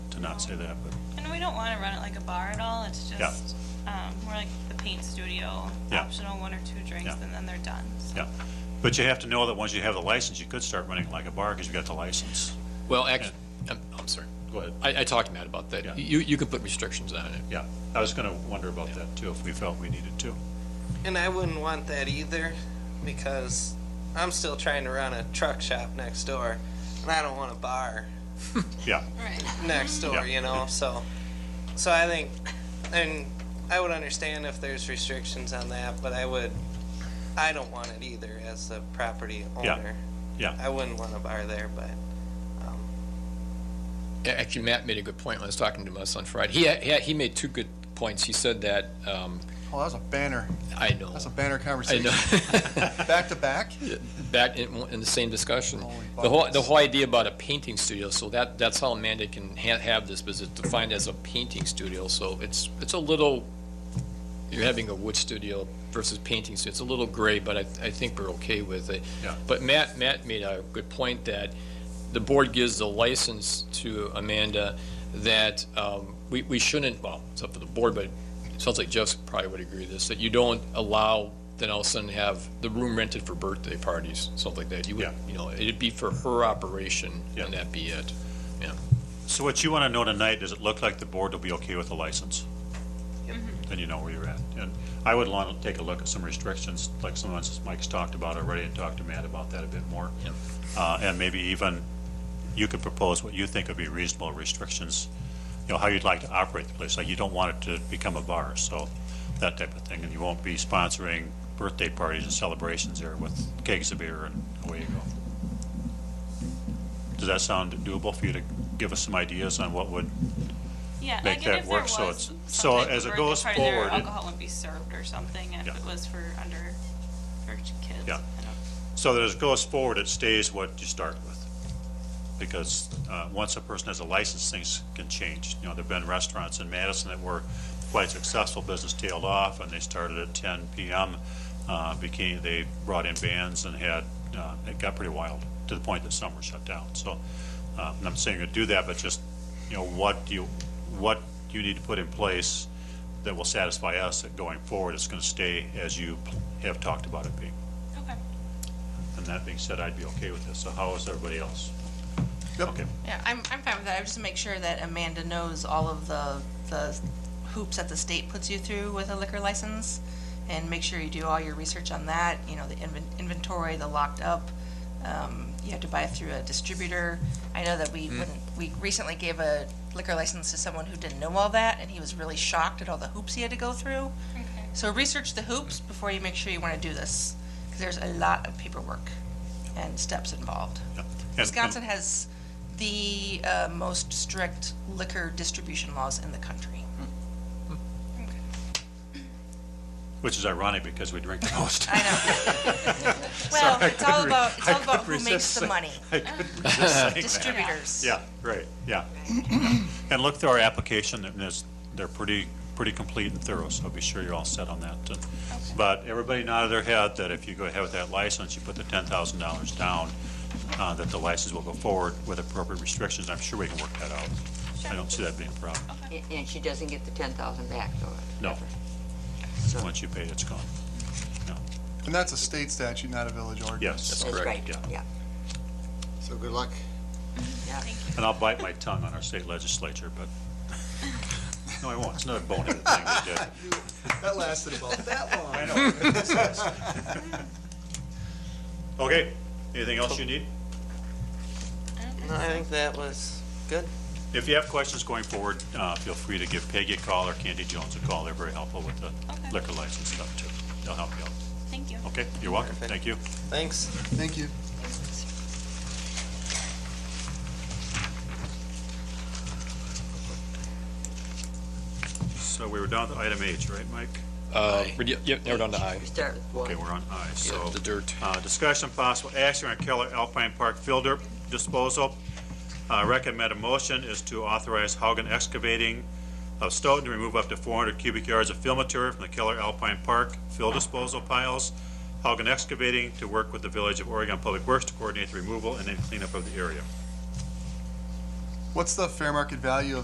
not say that, but And we don't want to run it like a bar at all, it's Yeah. just, um, more like the paint studio, Yeah. optional one or two drinks, Yeah. and then they're done. So yeah. But you have to know that once you have the license, you could start running it like a bar because you got the license. Well, actually, I'm, I'm sorry. Go ahead. I, I talked to Matt about Yeah. that. You, you can put restrictions on it. Yeah, I was going to wonder about that too, if we felt we needed to. And I wouldn't want that either because I'm still trying to run a truck shop next door and I don't want a bar Yeah, Right. next door, Yeah. you know? So so I think and I would understand if there's restrictions on that, but I would I don't want it either as the property Yeah. owner. yeah, I wouldn't want a bar there, but um, A- Actually, Matt made a good point when I was talking to us on Friday. He, he, he made two good points. He said that, um, Oh, that was a banner. I know, That's a banner I conversation. know, Back to back? back in, in the same discussion. Holy The whole, the buckets. whole idea about a painting studio, so that, that's how Amanda can ha- have this, because it's defined as a painting studio, so it's, it's a little, you're having a wood studio versus painting studio. It's a little gray, but I, I think we're okay with it. Yeah. But Matt, Matt made a good point that the board gives the license to Amanda that um, we, we shouldn't, well, it's up to the board, but it sounds like Jeff probably would agree with this, that you don't allow, then all of a sudden have the room rented for birthday parties, something like that. You would, Yeah. you know, it'd be for her operation, Yeah. and that'd be it. Yeah. So what you want to know tonight, does it look like the board will be okay with the license? Yep. Then you know where you're at. And I would want to take a look at some restrictions, like some of the Mike's talked about already, and talk to Matt about that a bit more. Yep. Uh, and maybe even, you could propose what you think would be reasonable restrictions, you know, how you'd like to operate the place, like you don't want it to become a bar, so that type of thing, and you won't be sponsoring birthday parties and celebrations there with kegs of beer and away you go. Does that sound doable for you to give us some ideas on what would, Yeah, like Make and that if there work, so was it's- some so type of as it birthday goes party there, forward, it- Alcohol would be served or something, if Yeah. it was for under, for kids. Yeah. I don't- so that as it goes forward, it stays what you start with? Because uh, once a person has a license, things can change. You know, there've been restaurants in Madison that were quite successful, business tailed off, and they started at 10 PM, uh, became, they brought in bands and had, uh, it got pretty wild, to the point that some were shut down. So, uh, and I'm saying to do that, but just, you know, what do you, what you need to put in place that will satisfy us that going forward, it's going to stay as you have talked about it being. Okay. And that being said, I'd be okay with this. So how is everybody else? Yep. Okay, Yeah, I'm, I'm fine with that. I just make sure that Amanda knows all of the, the hoops that the state puts you through with a liquor license. And make sure you do all your research on that, you know, the inven- inventory, the locked up. Um, you have to buy it through a distributor. I know that we wouldn't, we recently gave a liquor license to someone who didn't know all that and he was really shocked at all the hoops he had to go through. Okay. So research the hoops before you make sure you want to do this, because there's a lot of paperwork and steps involved. yeah. And- Wisconsin has the uh, most strict liquor distribution laws in the country. Which is ironic because we drink the most. I know. Well, it's all about, it's all about who makes the money, I couldn't resist saying that. distributors. Yeah, right, yeah. And look through our application, and there's, they're pretty, pretty complete and thorough, so be sure you're all set on that. And- But everybody nodded their head that if you go ahead with that license, you put the ten thousand dollars down, uh, that the license will go forward with appropriate restrictions. I'm sure we can work that out. I don't see that being a problem. A- And she doesn't get the ten thousand back, though? No. So- Once you pay it, it's gone. No, And that's a state statute, not a village ordinance. yes. That's right, yeah. yeah. So good luck. yeah. And I'll bite my tongue on our state legislature, but, no, I won't. It's another bonehead thing we did. That lasted about that long. I know. Okay, anything else you need? no, I think that was good. If you have questions going forward, uh, feel free to give Peggy a call or Candy Jones a call. They're very helpful with the Okay. liquor license stuff too. They'll help you out. Thank you. Okay, you're welcome. Perfect. Thank you. Thanks. Thank you. So we were down to item H, right, Mike? Uh, re- Yep, narrowed down to I. We start with Okay, one. we're on I, so. Yeah, the dirt. Uh, Discussion possible action on Keller Alpine Park filter disposal. Uh, Recommended motion is to authorize Haugen Excavating of Stoughton to remove up to 400 cubic yards of fill material from the Keller Alpine Park fill disposal piles. Haugen Excavating to work with the Village of Oregon Public Works to coordinate the removal and then cleanup of the area. What's the fair market value of